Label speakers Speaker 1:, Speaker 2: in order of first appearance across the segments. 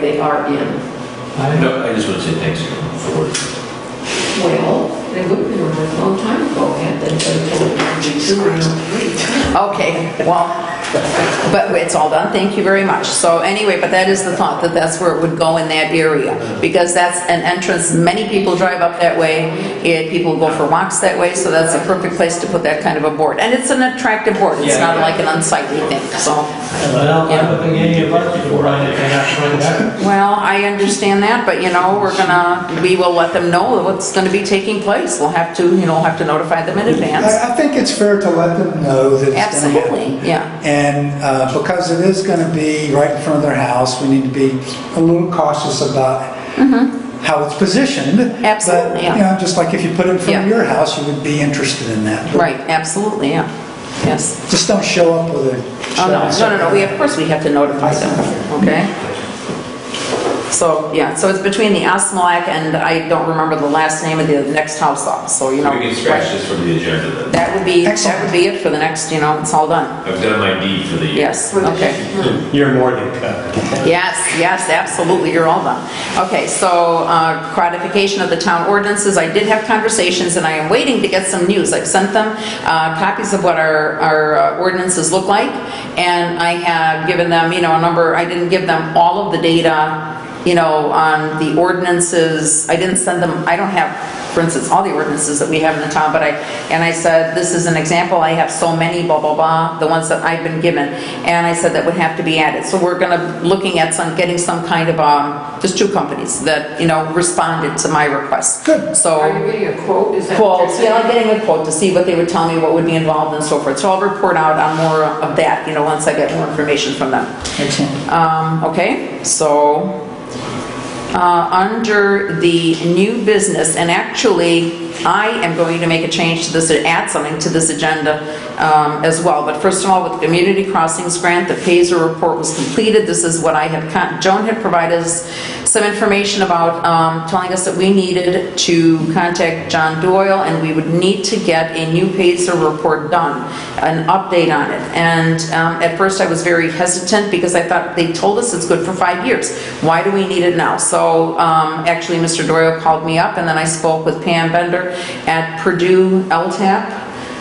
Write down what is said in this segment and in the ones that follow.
Speaker 1: they are in.
Speaker 2: I
Speaker 3: No, I just want to say thanks for,
Speaker 1: Well, they would have been around a long time ago had they been told to be two or three.
Speaker 4: Okay, well, but it's all done, thank you very much. So anyway, but that is the thought, that that's where it would go in that area, because that's an entrance, many people drive up that way, and people go for walks that way, so that's a perfect place to put that kind of a board. And it's an attractive board, it's not like an unsightly thing, so.
Speaker 2: don't have a any of us to run it, and I run back.
Speaker 4: Well, I understand that, but you know, we're gonna, we will let them know what's gonna be taking place. We'll have to, you know, have to notify them in advance.
Speaker 5: I I think it's fair to let them know that it's going to happen.
Speaker 4: Absolutely, yeah.
Speaker 5: And uh, because it is going to be right in front of their house, we need to be a little cautious about how it's positioned.
Speaker 4: Mm-hmm. Absolutely,
Speaker 5: But,
Speaker 4: yeah.
Speaker 5: you know, just like if you put it in front of
Speaker 4: Yeah.
Speaker 5: your house, you would be interested in that.
Speaker 4: Right, absolutely, yeah, yes.
Speaker 5: Just don't show up with a...
Speaker 4: Oh, no, no, no, no, we, of course, we have to notify them, okay? So, yeah, so it's between the Asmalak and I don't remember the last name of the next house up, so, you know.
Speaker 3: we can scratch this from the agenda then.
Speaker 4: That would be, that
Speaker 5: Excellent.
Speaker 4: would be it for the next, you know, it's all done.
Speaker 3: I've done my deed for the year.
Speaker 4: Yes, okay.
Speaker 2: You're more than covered.
Speaker 4: Yes, yes, absolutely, you're all done. Okay, so uh, codification of the town ordinances, I did have conversations, and I am waiting to get some news. I've sent them uh, copies of what our our uh, ordinances look like, and I have given them, you know, a number, I didn't give them all of the data, you know, on the ordinances, I didn't send them, I don't have for instance, all the ordinances that we have in the town, but I, and I said, this is an example, I have so many, blah, blah, blah, the ones that I've been given, and I said that would have to be added. So we're gonna, looking at some, getting some kind of, um, just two companies that, you know, responded to my request. Good.
Speaker 1: Are you
Speaker 4: So,
Speaker 1: getting a quote? Is that what you're
Speaker 4: quotes,
Speaker 1: saying?
Speaker 4: yeah, I'm getting a quote to see what they would tell me, what would be involved and so forth. So I'll report out on more of that, you know, once I get more information from them.
Speaker 5: Excellent.
Speaker 4: Um, okay, so, uh, under the new business, and actually, I am going to make a change to this, add something to this agenda, um, as well. But first of all, with the Community Crossings Grant, the phaser report was completed. This is what I had, con- Joan had provided us some information about, um, telling us that we needed to contact John Doyle, and we would need to get a new phaser report done, an update on it. And, um, at first, I was very hesitant, because I thought, they told us it's good for five years. Why do we need it now? So um, actually, Mr. Doyle called me up, and then I spoke with Pam Bender at Purdue LTAP.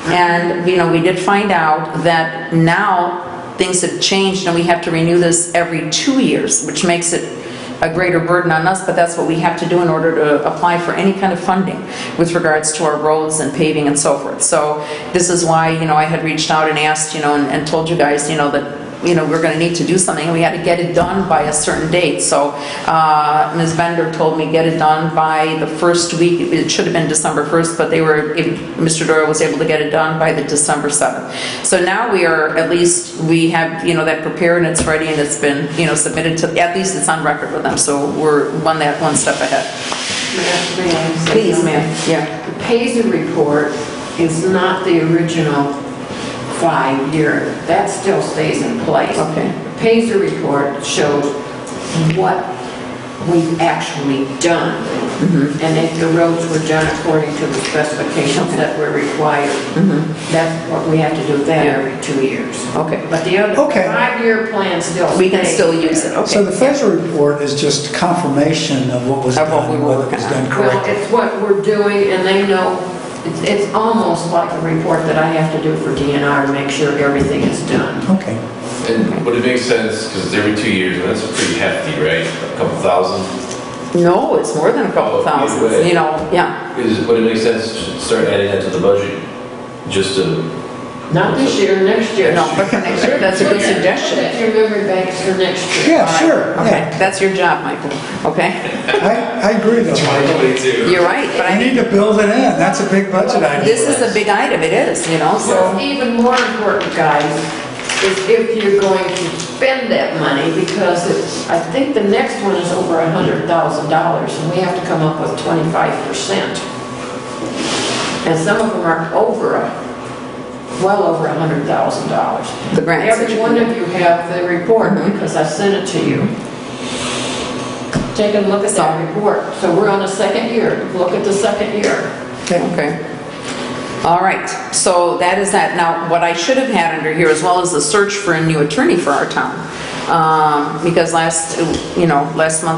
Speaker 4: And, you know, we did find out that now things have changed, and we have to renew this every two years, which makes it a greater burden on us, but that's what we have to do in order to apply for any kind of funding with regards to our roads and paving and so forth. So this is why, you know, I had reached out and asked, you know, and- and told you guys, you know, that, you know, we're going to need to do something, and we had to get it done by a certain date. So uh, Ms. Bender told me, get it done by the first week, it should have been December 1st, but they were, if Mr. Doyle was able to get it done by the December 7th. So now we are, at least, we have, you know, that prepared, and it's ready, and it's been, you know, submitted to, at least it's on record with them, so we're one that, one step ahead.
Speaker 1: May I- may I say
Speaker 4: Please,
Speaker 1: something?
Speaker 4: ma'am, yeah.
Speaker 1: The Paisley report is not the original five-year, that still stays in place.
Speaker 4: Okay.
Speaker 1: The Paisley report shows what we've actually done,
Speaker 4: Mm-hmm.
Speaker 1: and if the roads were done according to the specifications that were required, that's what we have to do that
Speaker 4: Yeah.
Speaker 1: every two years.
Speaker 4: Mm-hmm. Okay.
Speaker 1: But the other,
Speaker 5: Okay.
Speaker 1: five-year plan still
Speaker 4: We can
Speaker 1: stays.
Speaker 4: still use it, okay.
Speaker 5: So the FESR report is just confirmation of what was
Speaker 4: Of
Speaker 5: done,
Speaker 4: what we were
Speaker 5: whether it was
Speaker 4: working on.
Speaker 5: done
Speaker 1: Well,
Speaker 5: correctly.
Speaker 1: it's what we're doing, and they know, it's, it's almost like a report that I have to do for DNR to make sure everything is done.
Speaker 5: Okay.
Speaker 3: And would it make sense, because it's every two years, and that's pretty hefty, right? A couple thousand?
Speaker 4: No, it's more than a couple
Speaker 3: Oh, either
Speaker 4: thousand,
Speaker 3: way.
Speaker 4: you know, yeah.
Speaker 3: Is, would it make sense to start adding that to the budget? Just to,
Speaker 1: Not this year, next year.
Speaker 4: No, but for next year, that's a good suggestion.
Speaker 1: That's your memory banks for next year.
Speaker 5: Yeah, sure,
Speaker 4: Okay,
Speaker 5: yeah.
Speaker 4: that's your job, Michael, okay?
Speaker 5: I, I agree though.
Speaker 4: You're right, but I
Speaker 5: We need to build it in, that's a big budget item.
Speaker 4: This is a big item, it is, you know,
Speaker 1: What's
Speaker 4: so,
Speaker 1: even more important, guys, is if you're going to spend that money, because it's, I think the next one is over a hundred thousand dollars, and we have to come up with twenty-five percent. And some of them are over, a- well over a hundred thousand dollars.
Speaker 4: The grants that
Speaker 1: Every
Speaker 4: you
Speaker 1: one
Speaker 4: can
Speaker 1: of you have the report, because I sent it to you. Take a look at that report. So we're on the second year. Look at the second year.
Speaker 5: Okay.
Speaker 4: okay. All right, so that is that. Now, what I should have had under here as well is the search for a new attorney for our town. um, because last, you know, last month